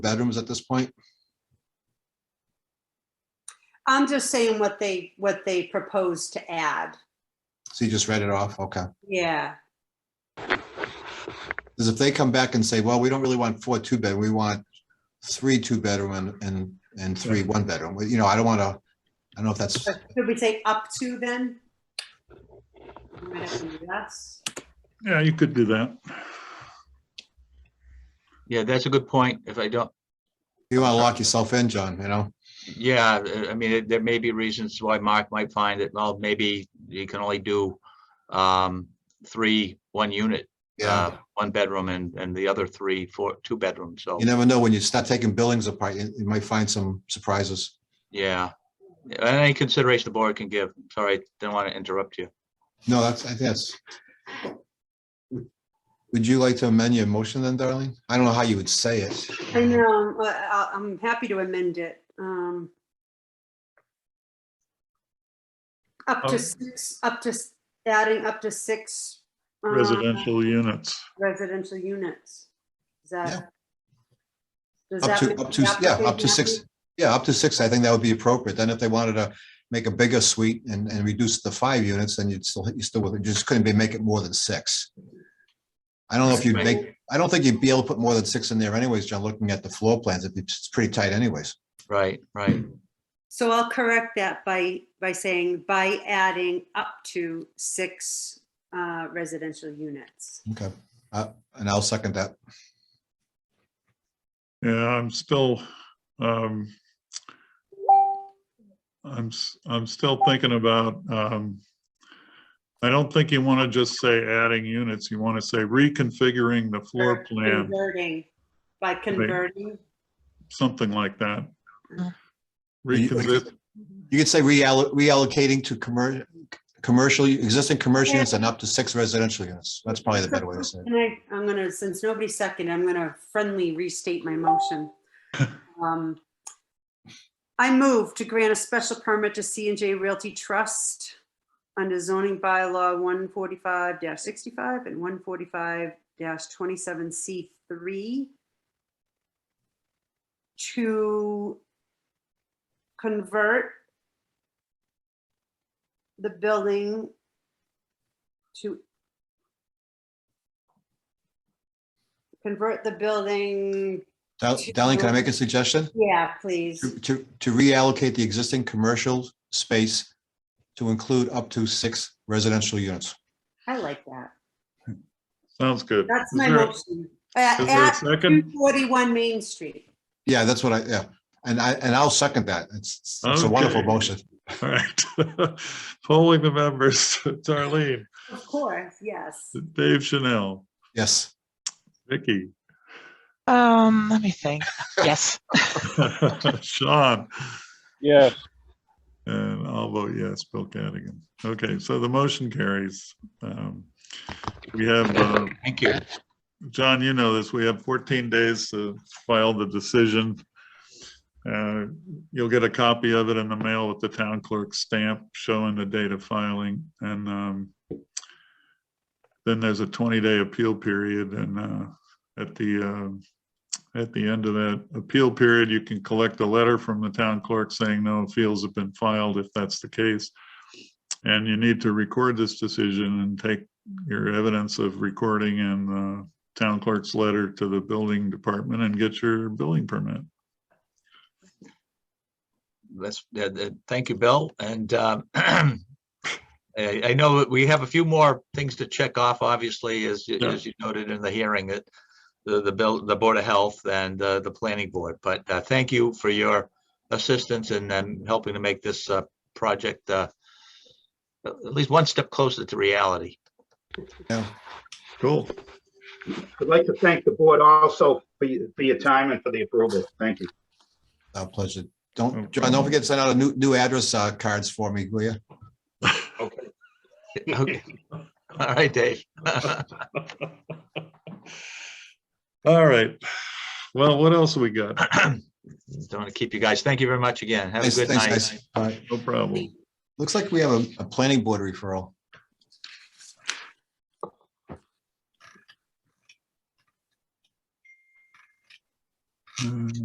bedrooms at this point? I'm just saying what they, what they propose to add. So you just read it off? Okay. Yeah, Because if they come back and say, well, we don't really want four two bed, we want three two bedroom and, and, and three one bedroom, Well, you know, I don't want to, I don't know if that's, but should we say up to then? We might have to do that. Yeah, you could do that. Uh-huh. Yeah, that's a good point. If I don't, you want to lock yourself in, John, you know? yeah, uh, I mean, there may be reasons why Mark might find that, well, maybe you can only do um, three, one unit, uh, one bedroom and, and the other three, four, two bedrooms. So, You never know when you start taking buildings apart, you, you might find some surprises. yeah. Yeah, Any consideration the board can give. Sorry, didn't want to interrupt you. No, that's, I think that's. Would you like to amend your motion then, darling? I don't know how you would say it. I know, but I- I'm happy to amend it. um, Up Um, Okay. to six, up to, s- adding up to six. uh, Residential units. Residential units. Is that? does Up that to- make up to the s- yeah, up to applicant six. happy? Yeah, up to six, I think that would be appropriate. Then if they wanted to make a bigger suite and, and reduce the five units, then you'd still, you still, would- you just couldn't be, make it more than six. I don't know if you'd Right. make, I don't think you'd be able to put more than six in there anyways, John, looking at the floor plans, it'd be- it's pretty tight anyways. Right, right. So I'll correct that by, by saying by adding up to six uh, residential units. Okay, uh, and I'll second that. Yeah, I'm still, um, I'm, s- I'm still thinking about, um, I don't think you want to just say adding units. You want to say reconfiguring the floor Or plan, Converting, by converting. something like that. Uh-huh. You- Reconfig, You could say reall- reallocating to commercial, commercial, existing commercial units and up to six residential units. That's probably the better way to say it. And I, I'm gonna, since nobody seconded, I'm gonna friendly restate my motion. Um, I move to grant a special permit to C and J Realty Trust under zoning bylaw one forty-five sixty-five and one forty-five twenty-seven C three to convert the building to convert the building, Dar- Darling, can I make a suggestion? yeah, please. To, to- to reallocate the existing commercial space to include up to six residential units. I like that. sounds good. That's Is my there- motion. Uh, Is there a At second? 241 Main Street. Yeah, that's what I, yeah, and I, and I'll second that. It's, it's a wonderful Okay. motion. All right. Polling the members, Darlene, Of course, yes. Dave Chanel, Yes, Vicky, Um, let me think. Yes. Sean, Yes, And I'll vote yes, Bill Cadigan. Okay, so the motion carries. Um, We have, uh, Thank you. John, you know this, we have 14 days to file the decision. Uh, You'll get a copy of it in the mail with the town clerk's stamp showing the date of filing. And um, then there's a 20-day appeal period and uh, at the, um, at the end of that appeal period, you can collect a letter from the town clerk saying no appeals have been filed if that's the case. And you need to record this decision and take your evidence of recording and uh, town clerk's letter to the building department and get your building permit. That's, uh, uh, thank you, Bill, and um, I I know that we have a few more things to check off, obviously, as, you- Yeah. as you noted in the hearing, that the, the bill, the Board of Health and uh, the Planning Board, but uh, thank you for your assistance and um, helping to make this uh, project uh, at at least one step closer to reality. yeah, Cool. I'd like to thank the board also for your, for your time and for the approval. Thank you. our pleasure. Don't, John, don't forget to send out a new, new address uh, cards for me, will you? Okay. All right, Dave. All right. Well, what else we got? Don't want to keep you guys. Thank you very much again. Have a Thanks, good thanks, night. guys. All right. No problem. Looks like we have a, a planning board referral. Uh,